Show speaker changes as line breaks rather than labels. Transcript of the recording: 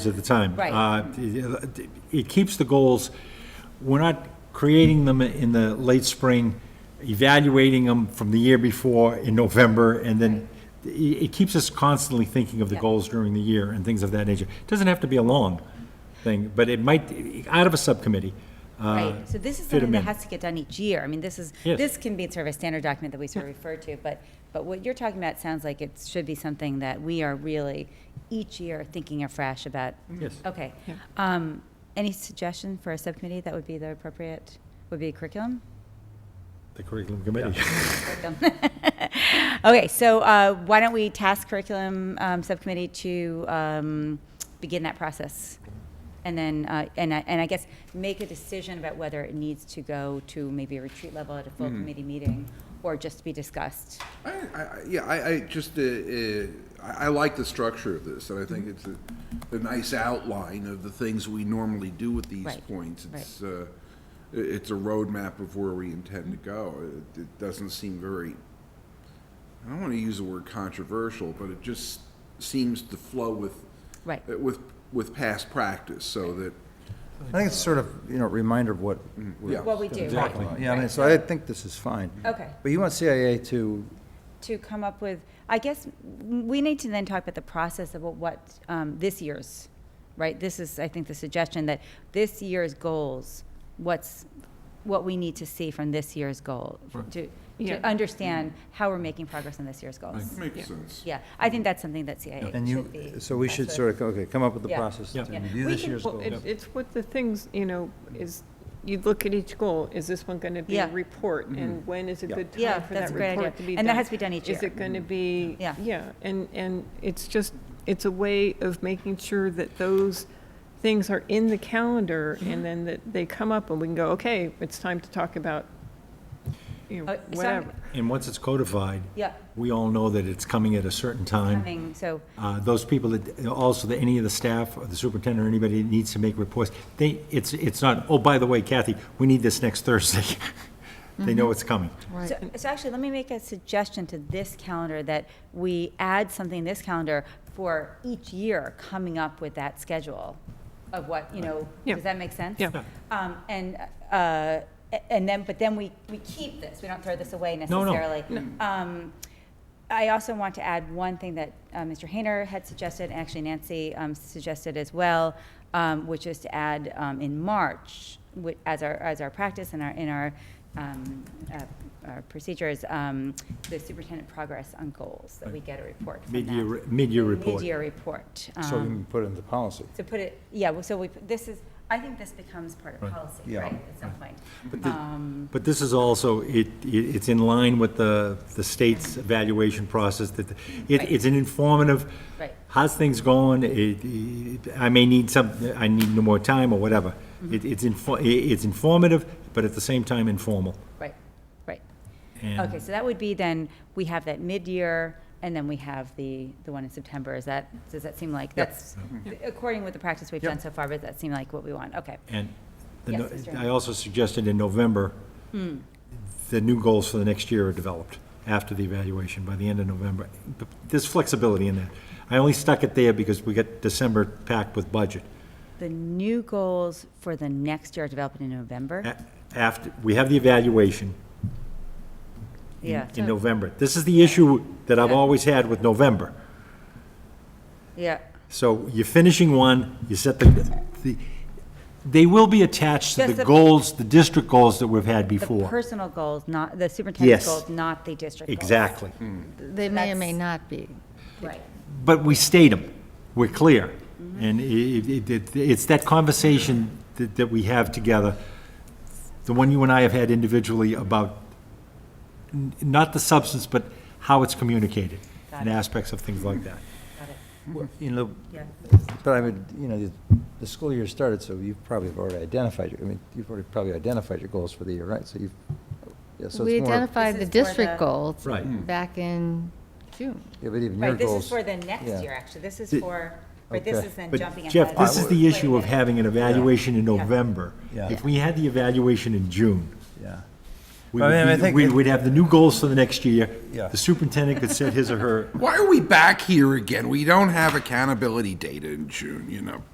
at the time.
Right.
Uh, it- It keeps the goals, we're not creating them in the late spring, evaluating them from the year before in November, and then it it keeps us constantly thinking of the
Yeah.
goals during the year and things of that nature. It Doesn't have to be a long thing, but it might, out of a subcommittee. uh,
Right, so this is
fit 'em
something that
in.
has to get done each year. I mean, this is,
Yes.
this can be sort of a standard document that we sort of refer to, but, but what you're talking about sounds like it should be something that we are really, each year, thinking afresh about.
Yes.
Okay. Um, Any suggestion for a subcommittee that would be the appropriate, would be curriculum?
The curriculum committee.
Curriculum. Okay, so uh, why don't we task curriculum um, subcommittee to um, begin that process? And then, uh, and I, and I guess, make a decision about whether it needs to go to maybe a retreat level at a
Hmm.
full committee meeting, or just be discussed.
I, I, I- yeah, I, I just, uh, uh, I, I like the structure of this, and I think
Mm-hmm.
it's a, a nice outline of the things we normally do with these
Right,
points.
right.
It's, uh, i- it's a roadmap of where we intend to go. It- It doesn't seem very, I don't want to use the word controversial, but it just seems to flow with,
Right.
uh, with, with past practice, so that,
I think it's sort of, you know, a reminder of what we're
yeah.
What we do, right?
talking about. Yeah, I mean, so I think this is fine.
Okay.
But you want CIA to,
To come up with, I guess, m- we need to then talk about the process of what- what, um, this year's, right? This is, I think, the suggestion that this year's goals, what's, what we need to see from this year's goal, to,
Yeah.
to understand how we're making progress on this year's
it
goals.
makes sense.
Yeah, I think that's something that CIA
and you,
should be.
so we should sort of, okay, come up with the
Yeah.
process to
Yeah.
review
We
this
can-
year's
Well,
goals.
it- it's what the things, you know, is, you look at each goal, is this one going to be a
Yeah.
report? And when is a
Yeah.
good
Yeah,
time for
that's
that
a great idea.
report to be done?
And that has to be done each
Is
year. Mm-hmm.
it going to be?
Yeah.
Yeah, and, and it's just, it's a way of making sure that those things are in the calendar
Mm-hmm.
and then that they come up and we can go, okay, it's time to talk about, you
Uh,
know,
so I'm-
whatever.
And once it's codified,
Yeah,
we all know that it's coming at a certain time.
coming, so,
Uh, Those people that, also, that any of the staff, or the superintendent, or anybody that needs to make reports, they, it's, it's not, oh, by the way, Kathy, we need this next Thursday. They
Mm-hmm.
know it's coming.
so, so actually, let me make a suggestion to this calendar that we add something in this calendar for each year coming up with that schedule of what, you know,
Yeah.
does that make sense?
Yeah.
Um, and, uh, a- and then, but then we, we keep this, we don't throw this away
no.
necessarily. Um, I also want to add one thing that uh, Mr. Hayner had suggested, and actually Nancy um, suggested as well, um, which is to add um, in March, wi- as our, as our practice and our, in our, um, uh, our procedures, um, the superintendent progress on goals, that we get a report from that.
Mid-year, mid-year report.
Mid-year report.
So we
um,
can put it into policy.
so put it, yeah, well, so we, this is, I think this becomes part of
Right.
policy,
Yeah.
right, at some point.
But the-
Um,
But this is also, it, it- it's in line with the, the state's evaluation process, that, the- it,
Right.
it's an informative,
Right.
how's things going, it, it- I may need some, I need no more time, or whatever.
Mm-hmm.
It, it's info, it- it's informative, but at the same time informal.
Right, right.
And-
Okay, so that would be then, we have that mid-year, and then we have the, the one in September, is that, does that seem like, that's, according with the practice we've done so far, but that seem like what we want, okay.
And the
Yes, Hmm.
no-
Mr.
I also suggested in November, the new goals for the next year are developed after the evaluation, by the end of November. But There's flexibility in that. I only stuck it there because we got December packed with budget.
The new goals for the next year are developed in November?
A- After, we have the evaluation
Yeah,
in November. This is the issue that I've always had with November.
yeah,
So you're finishing one, you set the, the, they will be attached to
Just
the
the-
goals, the district goals that we've had
the
before.
personal goals, not, the
Yes.
superintendent's goals, not the district goals.
Exactly.
They may or may
That's-
not be.
Right,
But we state them, we're clear. And i- i- it- it- it's that conversation that that we have together, the one you and I have had individually about, n- not the substance, but how it's communicated and aspects of things like that.
got it,
You know,
yeah.
but I would, you know, the- the school year started, so you probably have already identified, your. I mean, you've already probably identified your goals for the year, right? So you've, yeah, so
We
it's more, yeah,
identified the
This is for the- Hmm.
district goals.
Right. Mm.
Back in June.
but even your
Right, this is
goals.
for the next
yeah.
year, actually, this is
Th-
for, but this
Okay.
is then jumping
But
ahead.
Jeff, this is the
Wait a
issue of
minute.
having an evaluation in November.
Yeah.
If we had the evaluation in June,
Yeah.
we
I mean, I
would be-
think
we
it-
would have the new goals for the next year.
Yeah.
The superintendent could set his or her
Why are we back here again? We don't have accountability data in June, you know?